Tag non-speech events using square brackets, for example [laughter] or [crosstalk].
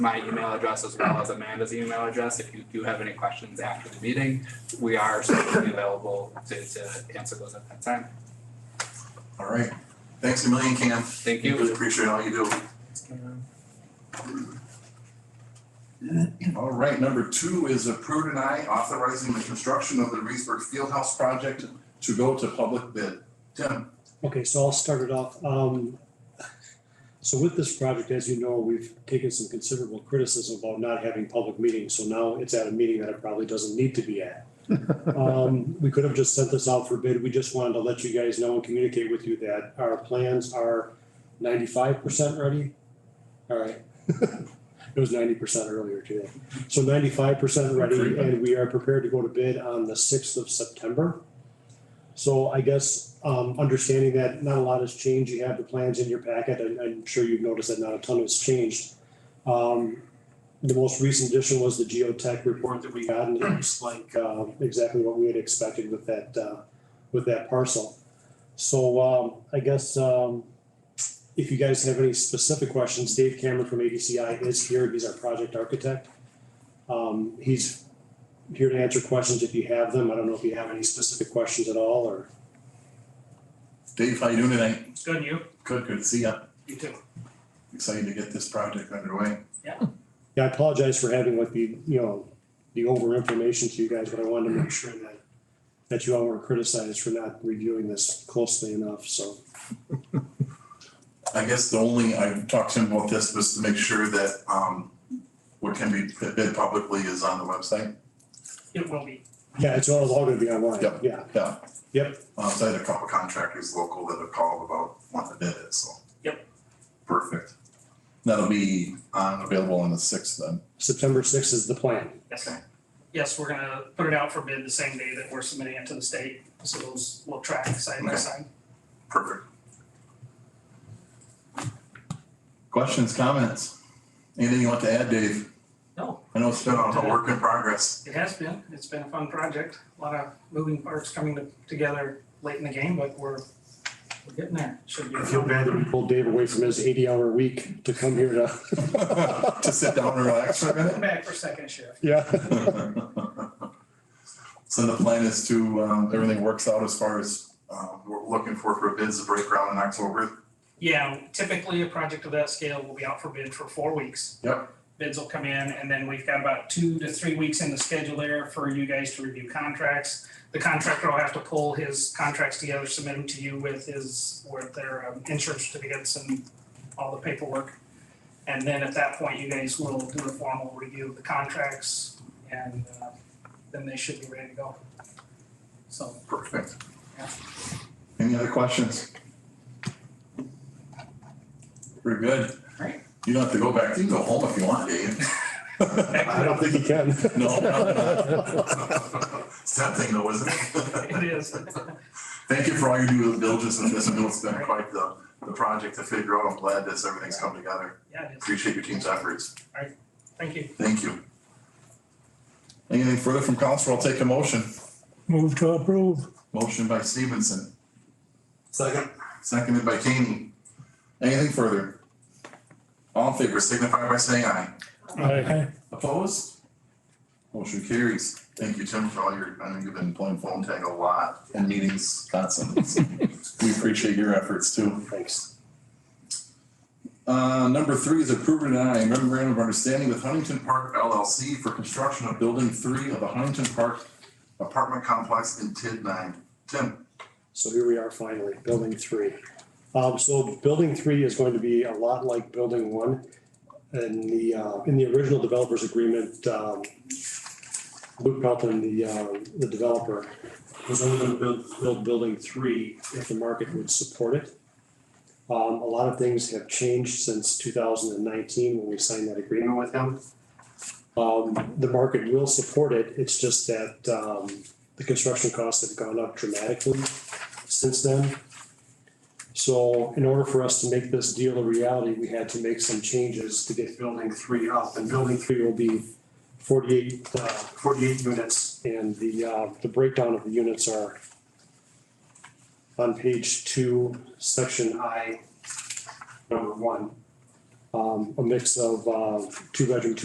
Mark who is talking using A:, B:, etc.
A: my email address as well as Amanda's email address. If you do have any questions after the meeting, we are certainly available to, to answer those at that time.
B: All right. Thanks a million, Cam.
A: Thank
B: We
A: you.
B: Appreciate all you do. All right, number two is approved and I authorizing the construction of the Reedsburg Fieldhouse project to go to public bid. Tim,
C: Okay, so I'll start it off. Um, So with this project, as you know, we've taken some considerable criticism about not having public meetings. So now it's at a meeting that it probably doesn't need to be at. Um, We could have just sent this out for bid. We just wanted to let you guys know and communicate with you that our plans are ninety-five percent ready. All right. [laughs] It was ninety percent earlier today. So ninety-five percent ready and we are prepared to go to bid on the sixth of September. So I guess, um, understanding that not a lot has changed, you have the plans in your packet, and I'm sure you've noticed that not a ton has changed. Um, the most recent addition was the geotech report that we got, and it looks like, uh, exactly what we had expected with that, uh, with that parcel. So, um, I guess, um, if you guys have any specific questions, Dave Cameron from ADCI is here, he's our project architect. Um, he's here to answer questions if you have them. I don't know if you have any specific questions at all or.
B: Dave, how you doing tonight?
D: It's good, you?
B: Good, good to see ya.
D: You too.
B: Excited to get this project underway.
C: Yeah, I apologize for having like the, you know, the over information to you guys, but I wanted to make sure that that you all were criticized for not reviewing this closely enough, so.
B: I guess the only, I talked to him about this was to make sure that, um, what can be bid publicly is on the website.
D: It will be.
C: Yeah, it's all, it's all gonna be online.
B: Yep.
C: Yeah,
B: Yeah.
C: Yep.
B: Um, so I had a couple contractors local that have called about wanting to bid it, so.
D: Yep.
B: Perfect. That'll be on, available on the sixth then.
C: September sixth is the plan.
D: Yes.
B: Okay.
D: Yes, we're gonna put it out for bid the same day that we're submitting it to the state, so those will track side by
B: Okay.
D: side.
B: Perfect. Questions, comments? Anything you want to add, Dave?
D: No.
B: I know it's been a a work in progress.
D: It has been, it's been a fun project, a lot of moving parts coming to- together late in the game, but we're we're getting there, should be.
C: I feel bad that we pulled Dave away from his eighty hour week to come here to.
B: [laughs] To sit down and relax for a minute. [laughs]
D: Come back for second shift.
C: Yeah,
B: So the plan is to, um, everything works out as far as, um, we're looking for for bids to break ground in October.
D: Yeah, typically a project of that scale will be out for bid for four weeks.
B: Yep.
D: Bids will come in and then we've got about two to three weeks in the schedule there for you guys to review contracts. The contractor will have to pull his contracts together, submit them to you with his, with their um, insurance certificates and all the paperwork. And then at that point, you guys will do a formal review of the contracts and uh, then they should be ready to go. So, [laughs]
B: Perfect.
D: Yeah.
B: Any other questions? We're good.
D: Great.
B: You don't have to go back. You can go home if you want, Dave.
C: I don't think he [laughs] can.
B: No. It's tempting though, isn't it?
D: it is.
B: Thank you for all your due diligence in this. I know it's been quite the, the project to figure out. I'm glad this, everything's come together.
D: Yeah, it is.
B: Appreciate your team's efforts.
D: Thank you.
B: Thank you. Anything further from council? I'll take a motion.
E: Move to approve.
B: Motion by Stevenson,
E: Second.
B: seconded by Kane. Anything further? All in favor signify by saying aye.
E: Aye.
B: Opposed? Motion carries. Thank you, Tim, for all your, I know you've been playing phone tag a lot and meetings constantly. so We appreciate your efforts too.
C: Thanks.
B: Uh, number three is approved and I memorandum of understanding with Huntington Park LLC for construction of building three of the Huntington Park apartment complex in TID nine. Tim,
C: So here we are finally, building three. Um, so building three is going to be a lot like building one. And the, uh, in the original developers agreement, um, Luke Pelton, the, uh, the developer, was only gonna build, build building three if the market would support it. Um, a lot of things have changed since two thousand and nineteen when we signed that agreement with him. Um, the market will support it, it's just that, um, the construction costs have gone up dramatically since then. So in order for us to make this deal a reality, we had to make some changes to get building three up. And building three will be forty-eight, uh, forty-eight units. And the, uh, the breakdown of the units are on page two, section I, number one. um, a mix of, uh, two-bedroom,